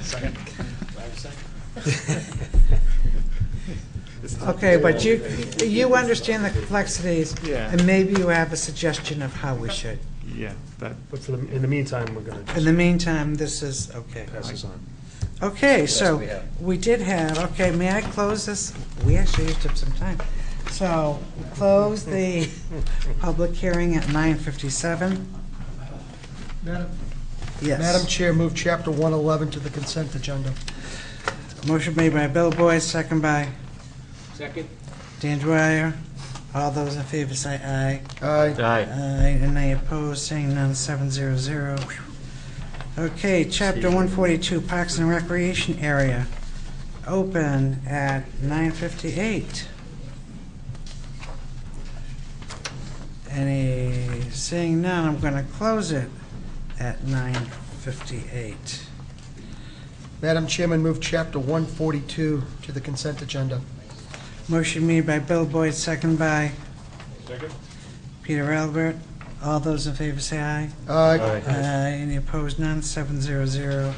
Second. Do I have a second? Okay, but you, you understand the complexities. Yeah. And maybe you have a suggestion of how we should. Yeah, that, But for the, in the meantime, we're gonna In just the meantime, this is, okay. pass this on. Okay, so we have. we did have, okay, may I close this? We actually used up some time. So close the public hearing at 9:57. Madam Yes. Madam Chair, move Chapter 111 to the consent agenda. Motion made by Bill Boyd, second by Second? Dan Dwyer. All those in favor say aye. Aye. Aye. Aye, and I oppose, saying none, seven zero zero. Okay, chapter one forty-two, Parks and Recreation Area, open at nine fifty-eight. Any, seeing none, I'm gonna close it at nine fifty-eight. Madam Chairman, move Chapter 142 to the consent agenda. Motion made by Bill Boyd, second by? Second. Peter Albert, all those in favor say aye. Aye. Aye, Uh, Any opposed? None. Seven zero zero.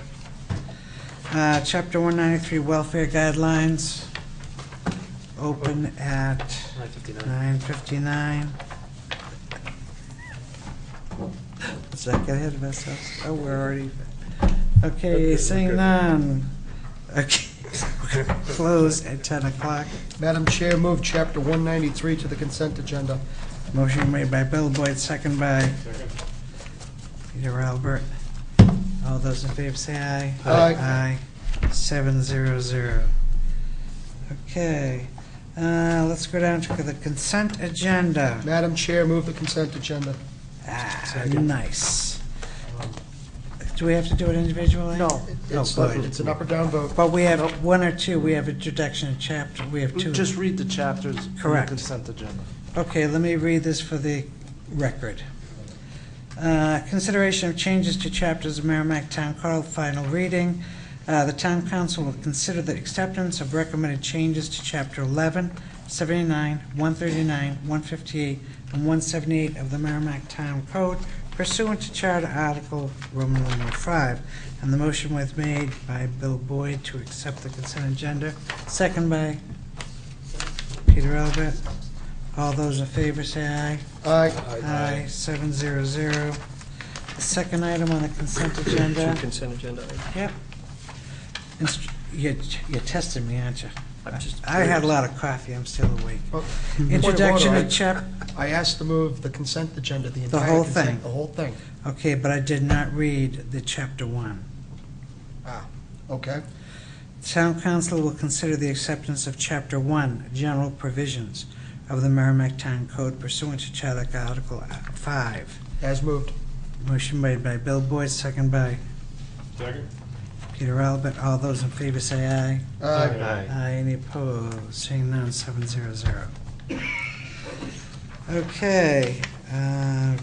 Uh, Chapter 193 Welfare Guidelines, open at Nine fifty-nine. 9:59. Let's not get ahead of ourselves. Oh, we're already, okay, seeing none. Okay, close at 10 o'clock. Madam Chair, move Chapter 193 to the consent agenda. Motion made by Bill Boyd, second by Peter Albert. All those in favor say aye. Aye. Aye, seven zero zero. Okay, uh, let's go down to the consent agenda. Madam Chair, move the consent agenda. Ah, nice. Do we have to do it individually? No. Oh, It's up- good. it's an up or down vote. But we have one or two, we have introduction and chapter, we have two. Just read the chapters. in the Correct. Consent agenda. Okay, let me read this for the record. Uh, Consideration of changes to chapters of Merrimack Town Code, final reading. Uh, The town council will consider the acceptance of recommended changes to chapter 11, 79, 139, 158, and 178 of the Merrimack Town Code pursuant to Charter Article Roman numeral 5. And the motion was made by Bill Boyd to accept the consent agenda, second by Peter Albert. All those in favor say aye. Aye. Aye, seven zero zero. The second item on the consent agenda, Consent agenda. yep. Inst- You're you're testing me, aren't you? I'm just I had a lot of coffee, I'm still awake. Oh, Introduction Point of of chap, I asked to move the consent agenda, the The entire whole consent- thing. The whole thing. okay, but I did not read the chapter one. Ah, okay. Town council will consider the acceptance of Chapter 1, General Provisions of the Merrimack Town Code pursuant to Charter Article 5. As moved. Motion made by Bill Boyd, second by Second. Peter Albert. All those in favor say aye. Aye. Aye, any opposed? Seeing none, seven zero zero. Okay. uh,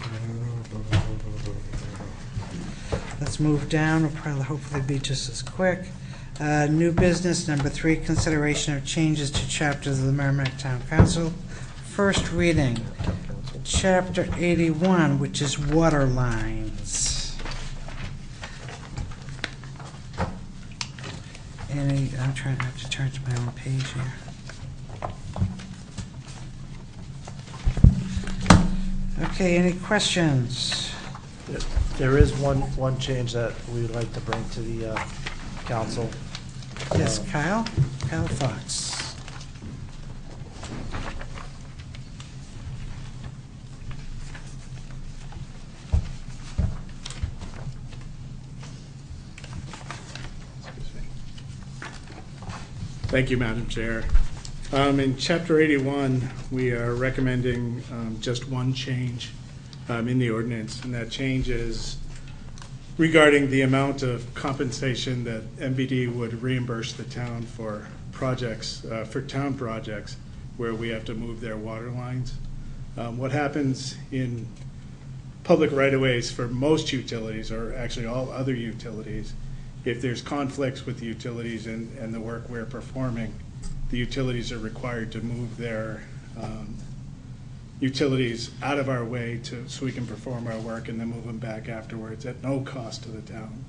Let's move down, it'll probably hopefully be just as quick. Uh, New business, number three, consideration of changes to chapters of the Merrimack Town Council. First reading, chapter eighty-one, which is water lines. Any, I'm trying, I have to turn to my own page here. Okay, any questions? There is one, one change that we would like to bring to the uh, council. Yes, Uh, Kyle? Kyle Fox. Thank you, Madam Chair. Um, In Chapter 81, we are recommending um, just one change um, in the ordinance, and that change is regarding the amount of compensation that MBD would reimburse the town for projects, uh, for town projects where we have to move their water lines. Um, What happens in public right-of-ways for most utilities, or actually all other utilities, if there's conflicts with the utilities and, and the work we're performing, the utilities are required to move their um, utilities out of our way to, so we can perform our work and then move them back afterwards at no cost to the town.